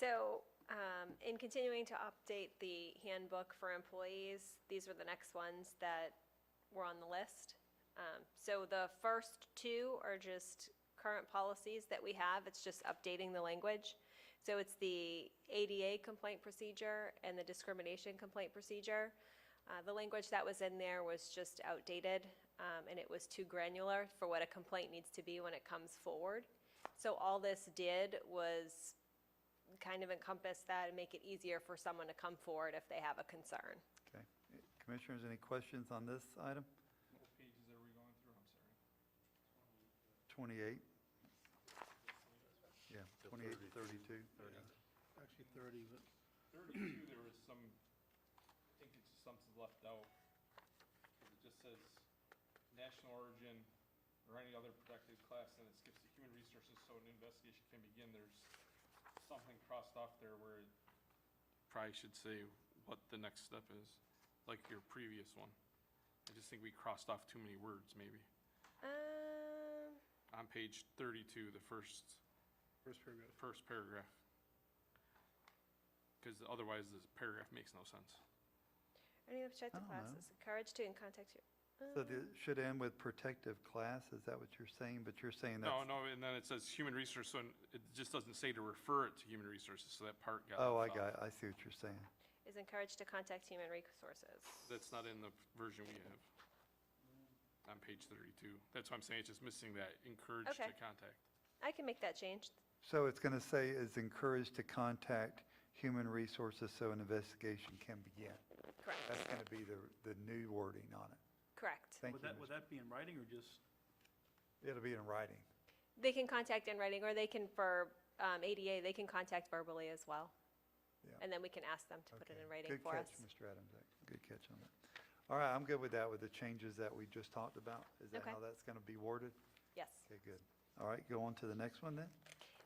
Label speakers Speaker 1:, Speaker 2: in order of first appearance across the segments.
Speaker 1: So, um, in continuing to update the handbook for employees, these were the next ones that were on the list. Um, So the first two are just current policies that we have, it's just updating the language. So it's the ADA complaint procedure and the discrimination complaint procedure. Uh, The language that was in there was just outdated, um, and it was too granular for what a complaint needs to be when it comes forward. So all this did was kind of encompass that and make it easier for someone to come forward if they have a concern.
Speaker 2: Okay. Commissioners, any questions on this item?
Speaker 3: What pages are we going through? I'm sorry.
Speaker 2: 28? Yeah, 28, 32.
Speaker 4: Actually 30, but
Speaker 3: Thirty-two, there was some, I think it's just something's left out. 'Cause It just says national origin or any other protected class, and it skips the human resources, so an investigation can begin. There's something crossed off there where it probably should say what the next step is, like your previous one. I just think we crossed off too many words, maybe.
Speaker 1: Um,
Speaker 3: On page thirty-two, the first
Speaker 4: first paragraph.
Speaker 3: first paragraph. Because otherwise, this paragraph makes no sense.
Speaker 1: any objective
Speaker 2: I don't
Speaker 1: classes, encourage to and contact you. Um,
Speaker 2: So it should end with protective class, is that what you're saying? But you're saying that's.
Speaker 3: No, no, and then it says human resource, so it just doesn't say to refer it to human resources, so that part got.
Speaker 2: Oh, I
Speaker 3: left
Speaker 2: got,
Speaker 3: out.
Speaker 2: it. I see what you're saying.
Speaker 1: Is encouraged to contact human resources.
Speaker 3: That's not in the version we have on page thirty-two. That's why I'm saying, it's just missing that encouraged to
Speaker 1: Okay.
Speaker 3: contact.
Speaker 1: I can make that change.
Speaker 2: So it's going to say is encouraged to contact human resources so an investigation can begin.
Speaker 1: Correct,
Speaker 2: That's going to be the, the new wording on it.
Speaker 1: correct.
Speaker 2: Thank
Speaker 4: Would
Speaker 2: you.
Speaker 4: that, would that be in writing or just,
Speaker 2: Ms. It'll be in writing.
Speaker 1: They can contact in writing, or they can, for um, ADA, they can contact verbally as well.
Speaker 2: Yeah.
Speaker 1: And then we can ask them to put it
Speaker 2: Okay.
Speaker 1: in writing for us.
Speaker 2: Good catch, Mr. Adams. Good catch on that. All right, I'm good with that, with the changes that we just talked about. Is that
Speaker 1: Okay.
Speaker 2: how that's going to be worded?
Speaker 1: Yes.
Speaker 2: Okay, good. All right, go on to the next one then.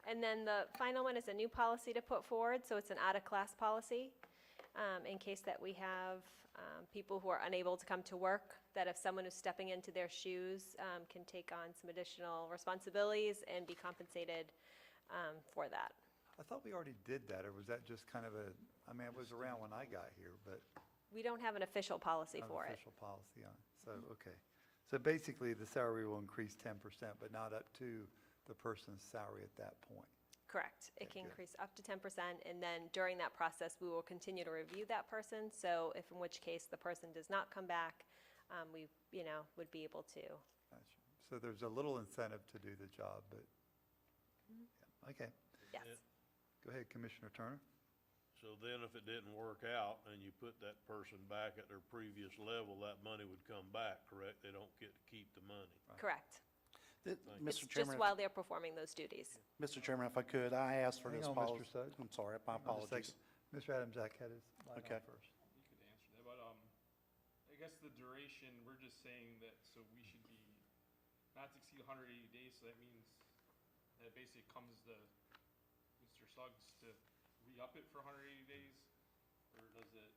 Speaker 1: And then the final one is a new policy to put forward, so it's an out-of-class policy, um, in case that we have um, people who are unable to come to work, that if someone is stepping into their shoes um, can take on some additional responsibilities and be compensated um, for that.
Speaker 2: I thought we already did that, or was that just kind of a, I mean, it was around when I got here, but
Speaker 1: We don't have an official policy
Speaker 2: not
Speaker 1: for
Speaker 2: an
Speaker 1: it. Mm-hmm.
Speaker 2: official policy on it. So, okay. So basically, the salary will increase ten percent, but not up to the person's salary at that point.
Speaker 1: Correct. It
Speaker 2: Okay,
Speaker 1: can
Speaker 2: good.
Speaker 1: increase up to 10%, and then during that process, we will continue to review that person. So if, in which case, the person does not come back, um, we, you know, would be able to
Speaker 2: Gotcha. So there's a little incentive to do the job, but,
Speaker 1: Mm-hmm.
Speaker 2: yeah, okay.
Speaker 1: Yes.
Speaker 2: Go ahead, Commissioner Turner.
Speaker 5: So then if it didn't work out and you put that person back at their previous level, that money would come back, correct? They don't get to keep the money.
Speaker 1: Correct.
Speaker 6: Th-
Speaker 1: It's
Speaker 6: Mr.
Speaker 1: just
Speaker 6: Chairman,
Speaker 1: while they're performing those duties.
Speaker 6: Mr. Chairman, if I could, I asked for
Speaker 2: Hang
Speaker 6: this
Speaker 2: on, Mr.
Speaker 6: policy.
Speaker 2: Suggs.
Speaker 6: I'm sorry,
Speaker 2: Hold on
Speaker 6: my
Speaker 2: a
Speaker 6: apologies.
Speaker 2: second. Mr. Adams, I had his light
Speaker 6: Okay.
Speaker 2: on first.
Speaker 3: You could answer that, but, um, I guess the duration, we're just saying that, so we should be not to exceed hundred eighty days, so that means that basically comes to Mr. Suggs to re-up it for hundred eighty days? Or does it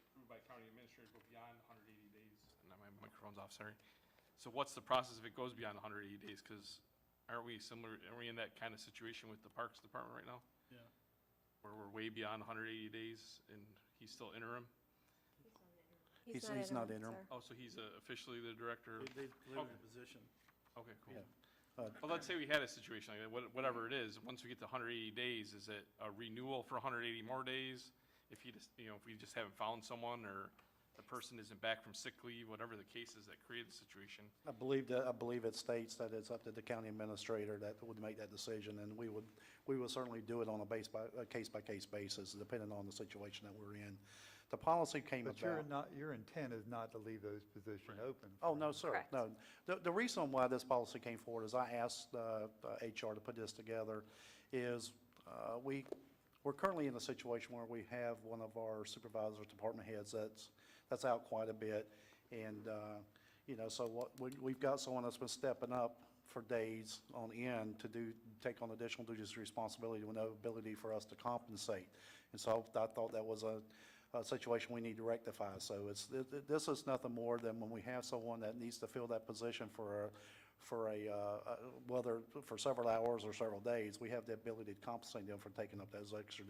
Speaker 3: approved by county administrator go beyond hundred eighty days? No, my microphone's off, sorry. So what's the process if it goes beyond hundred eighty days? Cause aren't we similar, are we in that kind of situation with the Parks Department right now?
Speaker 4: yeah,
Speaker 3: Where we're way beyond hundred eighty days and he's still interim?
Speaker 6: He's- he's not interim.
Speaker 1: sir.
Speaker 3: Oh, so he's uh, officially the director?
Speaker 4: they, they've delivered the position.
Speaker 3: Okay, cool.
Speaker 6: Yeah. Uh,
Speaker 3: Well, let's say we had a situation like that, what- whatever it is, once we get to hundred eighty days, is it a renewal for hundred eighty more days? If you just, you know, if we just haven't found someone, or the person isn't back from sick leave, whatever the case is that created the situation,
Speaker 6: I believe that, I believe it states that it's up to the county administrator that would make that decision, and we would, we would certainly do it on a base by, a case-by-case basis, depending on the situation that we're in. The policy came
Speaker 2: But your,
Speaker 6: about.
Speaker 2: not, your intent is not to leave those positions open.
Speaker 6: Oh, no, sir,
Speaker 1: Correct.
Speaker 6: no. The, the reason why this policy came forward is I asked, uh, uh, HR to put this together is, uh, we, we're currently in a situation where we have one of our supervisors, department heads, that's, that's out quite a bit. And, uh, you know, so what, we, we've got someone that's been stepping up for days on end to do, take on additional duties and responsibility with no ability for us to compensate. And so I thought that was a, a situation we need to rectify. So it's, th- th- this is nothing more than when we have someone that needs to fill that position for a, for a, uh, uh, whether for several hours or several days, we have the ability to compensate them for taking up those extra